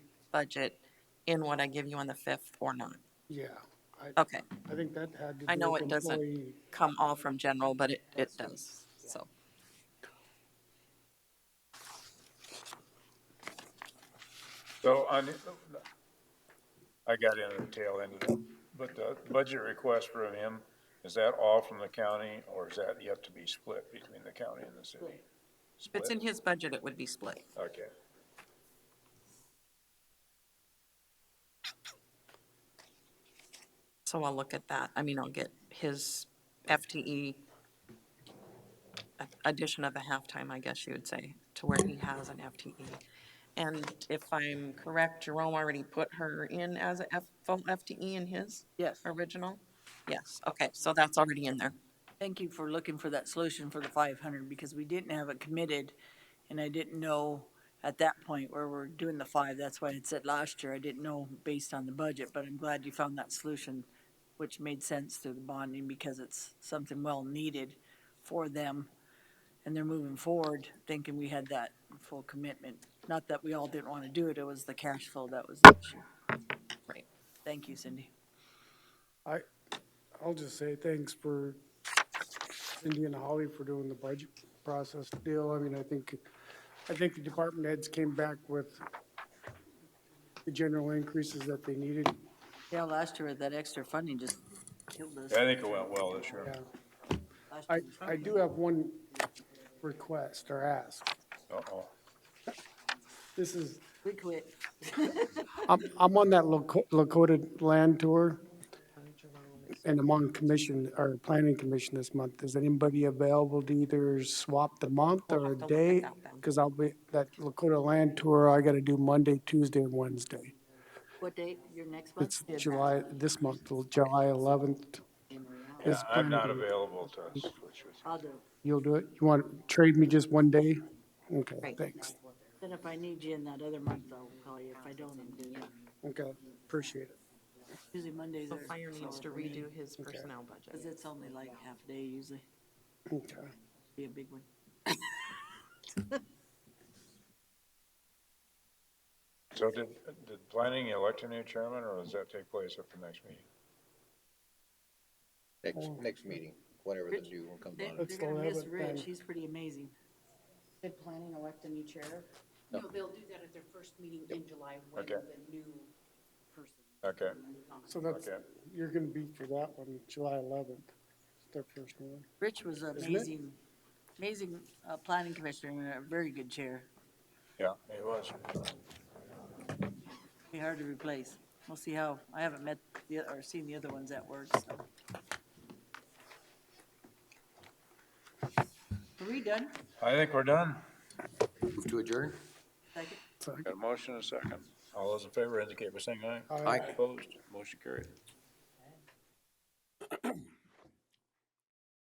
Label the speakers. Speaker 1: budget in what I give you on the fifth or not.
Speaker 2: Yeah, I,
Speaker 1: Okay,
Speaker 2: I think that had to do with employee.
Speaker 1: Oh. I know it doesn't come all from general, but it, it does, so.
Speaker 3: So on, I got in at the tail end of it, but the budget request from him, is that all from the county or is that yet to be split between the county and the city?
Speaker 1: If it's in
Speaker 3: Split?
Speaker 1: his budget, it would be split.
Speaker 3: Okay.
Speaker 1: So I'll look at that. I mean, I'll get his FTE a- addition of a halftime, I guess you would say, to where he has an FTE. And if I'm correct, Jerome already put her in as a F, full FTE in his
Speaker 4: Yes,
Speaker 1: original? Yes, okay, so that's already in there.
Speaker 4: thank you for looking for that solution for the five hundred, because we didn't have it committed, and I didn't know at that point where we're doing the five, that's why I had said last year, I didn't know based on the budget, but I'm glad you found that solution, which made sense through the bonding, because it's something well needed for them, and they're moving forward, thinking we had that full commitment. Not that we all didn't want to do it, it was the cash flow that was the issue.
Speaker 1: Right.
Speaker 4: Thank you, Cindy.
Speaker 2: I, I'll just say thanks for Cindy and Holly for doing the budget process deal. I mean, I think, I think the department heads came back with the general increases that they needed.
Speaker 4: Yeah, last year, that extra funding just killed us.
Speaker 3: I think it went well this year.
Speaker 2: Yeah.
Speaker 4: Last
Speaker 2: I,
Speaker 4: year was
Speaker 2: I do have one request or ask.
Speaker 3: Uh-oh.
Speaker 2: This is,
Speaker 4: We quit.
Speaker 2: I'm, I'm on that Lako- Lakota land tour, and I'm on commission, or planning commission this month. Is anybody available to either swap the month or a
Speaker 1: look at
Speaker 2: day?
Speaker 1: that then.
Speaker 2: Because I'll be, that Lakota land tour, I gotta do Monday, Tuesday, and Wednesday.
Speaker 4: What date, your next one?
Speaker 2: It's July, this month, till July 11th.
Speaker 3: Yeah,
Speaker 2: is
Speaker 3: I'm
Speaker 2: planning
Speaker 3: not
Speaker 2: commi-
Speaker 3: available to switch with you.
Speaker 4: I'll do it.
Speaker 2: You'll do it? You want to trade me just one day? Okay,
Speaker 1: Right.
Speaker 2: thanks.
Speaker 4: Then if I need you in that other month, I'll call you. If I don't, I'll do it.
Speaker 2: Okay, appreciate it.
Speaker 4: Usually Mondays
Speaker 1: So
Speaker 4: are.
Speaker 1: Fire needs to
Speaker 4: slower for me,
Speaker 1: redo his personnel
Speaker 4: Cause
Speaker 1: budget.
Speaker 4: it's only like half a day usually,
Speaker 2: Okay.
Speaker 4: be a big one.
Speaker 3: So did, did planning elect a new chairman or does that take place at the next meeting?
Speaker 5: Next, next meeting, whenever the new one comes
Speaker 4: They,
Speaker 5: on.
Speaker 4: are
Speaker 2: It's
Speaker 4: gonna miss
Speaker 2: 11th
Speaker 4: Rich,
Speaker 2: then.
Speaker 4: he's pretty amazing.
Speaker 6: Did planning elect a new chair?
Speaker 7: No, they'll do that at their first meeting in July when
Speaker 3: Okay.
Speaker 7: the new person.
Speaker 3: Okay,
Speaker 2: So that's,
Speaker 3: Okay.
Speaker 2: you're gonna be for that one, July 11th, their first one.
Speaker 4: Rich was
Speaker 2: it?
Speaker 4: amazing, amazing, uh, planning commissioner and a very good chair.
Speaker 3: yeah, it was.
Speaker 4: Be hard to replace. We'll see how, I haven't met the, or seen the other ones at work, so. Are we done?
Speaker 3: I think we're done.
Speaker 5: Move to adjourn?
Speaker 4: Second?
Speaker 2: So
Speaker 3: Got a motion and a second. All those in favor indicate by saying aye.
Speaker 2: Aye.
Speaker 5: Aye.
Speaker 3: Opposed, motion carried.